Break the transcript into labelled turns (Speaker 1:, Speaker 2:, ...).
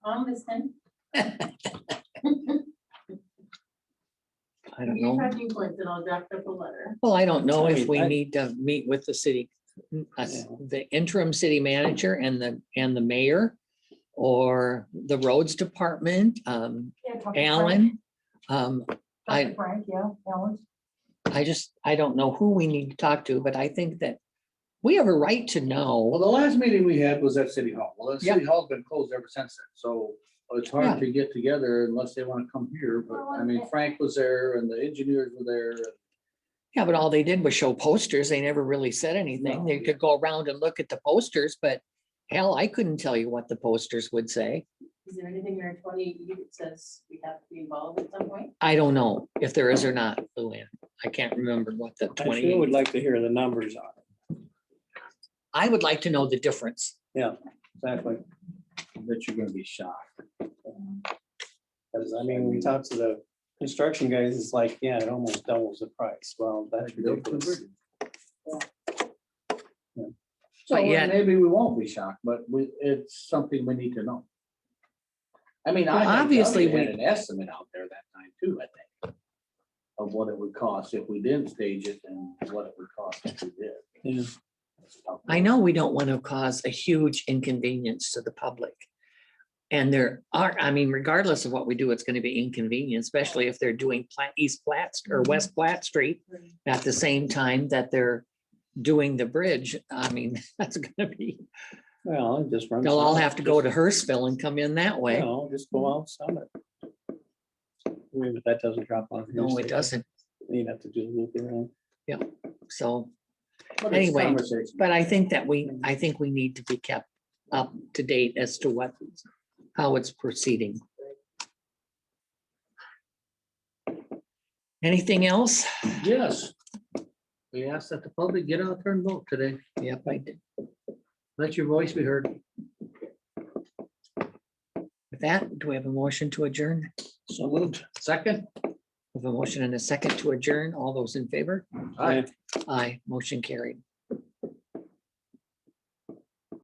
Speaker 1: I'm listening.
Speaker 2: I don't
Speaker 1: You
Speaker 2: know.
Speaker 1: have new points and I'll draft up a letter.
Speaker 2: Well, I don't know if we
Speaker 3: I-
Speaker 2: need to meet with the city, us- the interim city manager and the, and the mayor or the roads department, um,
Speaker 1: Yeah, talk to Frank.
Speaker 2: Alan. Um,
Speaker 1: Talk
Speaker 2: I-
Speaker 1: to Frank, yeah, Alan.
Speaker 2: I just, I don't know who we need to talk to, but I think that we have a right to
Speaker 3: Well,
Speaker 2: know.
Speaker 3: the last meeting we had was at City Hall. Well, the
Speaker 2: Yeah.
Speaker 3: City Hall's been closed ever since then, so it's
Speaker 2: Yeah.
Speaker 3: hard to get together unless they want to come here, but I mean, Frank was there and the engineers were there.
Speaker 2: Yeah, but all they did was show posters. They never really said anything.
Speaker 3: No,
Speaker 2: They
Speaker 3: yeah.
Speaker 2: could go around and look at the posters, but hell, I couldn't tell you what the posters would say.
Speaker 1: Is there anything in our twenty E that says we have to be involved at some point?
Speaker 2: I don't know if there is or not, Luann. I can't remember what the
Speaker 4: I
Speaker 2: twenty.
Speaker 4: still would like to hear the numbers on it.
Speaker 2: I would like to know the difference.
Speaker 4: Exactly.
Speaker 3: That you're gonna be shocked.
Speaker 4: Because I mean, we talked to the construction guys, it's like, yeah, it almost doubles the price. Well, that's ridiculous.
Speaker 3: So
Speaker 2: But yet-
Speaker 3: maybe we won't be shocked, but we, it's something we need to know. I mean, I.
Speaker 2: Well, obviously
Speaker 3: obviously had
Speaker 2: we-
Speaker 3: an estimate out there that time too, I think. Of what it would cost if we didn't stage it and what it would cost if we did.
Speaker 4: Yeah.
Speaker 2: I know we don't want to cause a huge inconvenience to the public. And there are, I mean, regardless of what we do, it's going to be inconvenient, especially if they're doing Pla- East Platt or West Platt Street at the same time that they're doing the bridge. I mean, that's going to be,
Speaker 4: Well, it just runs.
Speaker 2: they'll all have to go to Hurstville and come in that way.
Speaker 4: No, just go out summit. Wait, But that doesn't drop off.
Speaker 2: No, it doesn't.
Speaker 4: You'd have to do a loop around.
Speaker 2: So,
Speaker 3: But it's
Speaker 2: Anyway,
Speaker 3: conversation.
Speaker 2: but I think that we, I think we need to be kept up to date as to what, how it's proceeding. Anything else?
Speaker 3: Yes. We ask that the public get out there and vote today.
Speaker 2: Yep, I did.
Speaker 3: Let your voice be heard.
Speaker 2: With that, do we have a motion to adjourn?
Speaker 3: So moved. Second.
Speaker 2: We have a motion and a second to adjourn. All those in favor?
Speaker 3: Aye.
Speaker 2: Aye, motion carried.